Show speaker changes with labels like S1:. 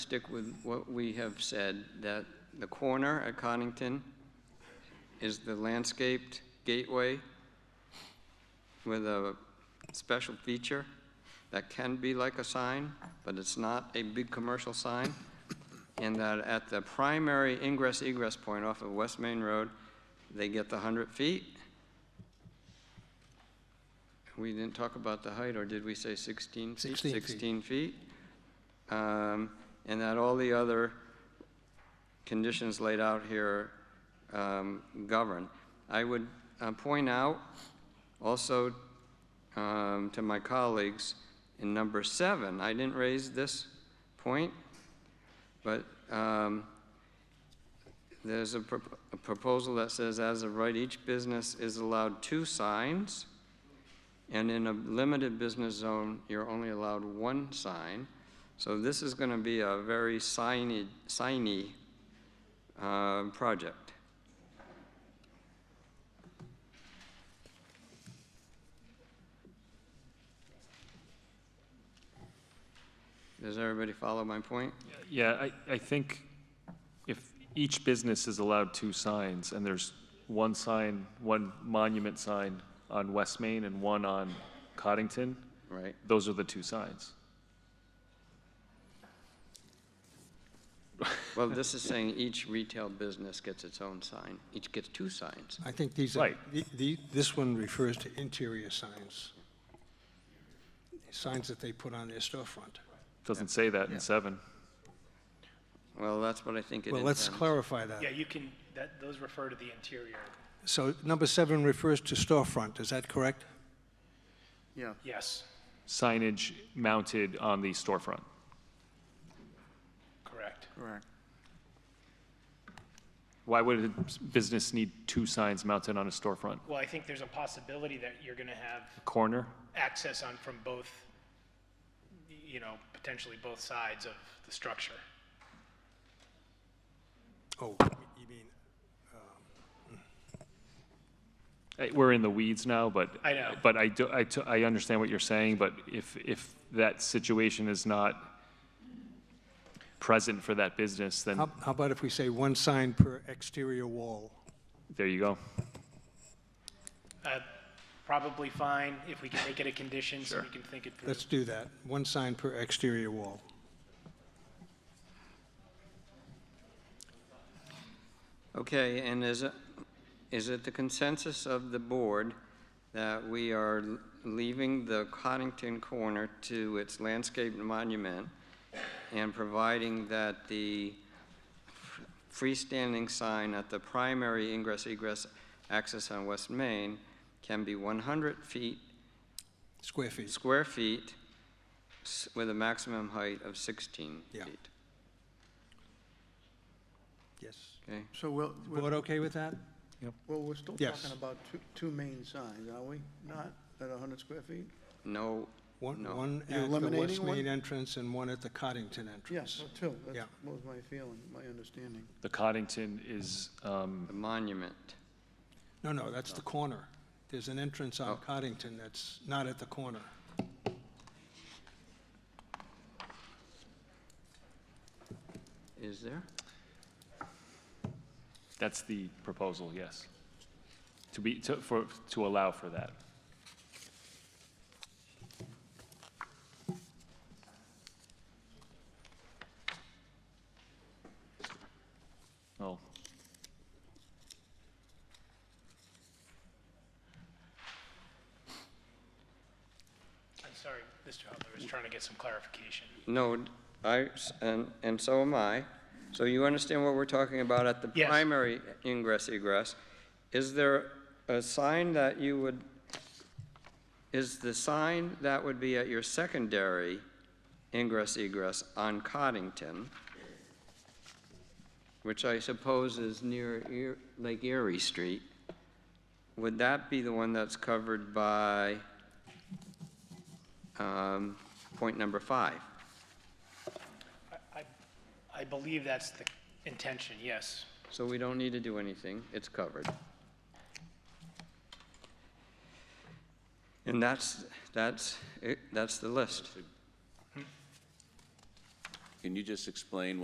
S1: stick with what we have said, that the corner at Connington is the landscaped gateway with a special feature that can be like a sign, but it's not a big commercial sign. And that at the primary ingress egress point off of West Main Road, they get the 100 feet. We didn't talk about the height, or did we say 16 feet?
S2: 16 feet.
S1: 16 feet. Um, And that all the other conditions laid out here um, govern. I would uh, point out also um, to my colleagues, in number seven, I didn't raise this point, but um, there's a prop- a proposal that says, as of right, each business is allowed two signs, and in a limited business zone, you're only allowed one sign. So this is going to be a very signy, signy uh, project. Does everybody follow my point?
S3: Yeah, I, I think if each business is allowed two signs, and there's one sign, one monument sign on West Main and one on Coddington,
S1: Right?
S3: those are the two signs.
S1: Well, this is saying each retail business gets its own sign. Each gets two signs.
S2: I think these are,
S3: Right.
S2: the- the- this one refers to interior signs, signs that they put on their storefront.
S3: Doesn't say that in seven.
S1: Well, that's what I think it
S2: Well, let's
S1: is.
S2: clarify that.
S4: Yeah, you can, that, those refer to the interior,
S2: So number seven refers to storefront, is that correct?
S5: Yeah,
S4: yes,
S3: Signage mounted on the storefront.
S4: correct.
S5: correct.
S3: Why would a s- business need two signs mounted on a storefront?
S4: Well, I think there's a possibility that you're gonna have
S3: Corner?
S4: access on from both, you know, potentially both sides of the structure.
S2: Oh, you mean,
S3: Eh, We're in the weeds now, but.
S4: I know.
S3: But I do, I, t- I understand what you're saying, but if, if that situation is not present for that business, then
S2: how how about if we say one sign per exterior wall?
S3: there you go.
S4: Uh, Probably fine, if we can make it a condition, so we can think it through.
S2: Let's do that, one sign per exterior wall.
S1: Okay, and is, it- is it the consensus of the board that we are l- leaving the Coddington corner to its landscaped monument and providing that the f- freestanding sign at the primary ingress egress access on West Main can be 100 feet
S2: Square feet,
S1: square feet s- with a maximum height of 16
S2: Yeah.
S1: feet.
S2: yes.
S1: Okay,
S5: So we'll, we'll,
S2: Board okay with that?
S5: well, we're still
S2: uh, Yes.
S5: talking about two, two main signs, are we? Not at 100 square feet?
S1: no,
S2: One,
S1: No.
S2: one
S5: You're
S2: at the
S5: eliminating
S2: West
S5: one?
S2: Main entrance and one at the Coddington entrance.
S5: Yes, two.
S2: Yeah.
S5: That was my feeling, my understanding.
S3: The Coddington is, um,
S1: the monument.
S2: No, no, that's the corner. There's an entrance
S1: Oh.
S2: on Coddington that's not at the corner.
S1: Is there?
S3: that's the proposal, yes. To be, to, for, to allow for that. Well,
S4: I'm sorry, Mr. Hubler was trying to get some clarification.
S1: No, I, and, and so am I. So you understand what we're talking about at the
S4: Yes.
S1: primary ingress egress? Is there a sign that you would, is the sign that would be at your secondary ingress egress on Coddington, which I suppose is near Erie- Lake Erie Street, would that be the one that's covered by um, point number five?
S4: I- I, I believe that's the intention, yes.
S1: So we don't need to do anything, it's covered. And that's, that's, it- that's the list.
S6: Can you just explain what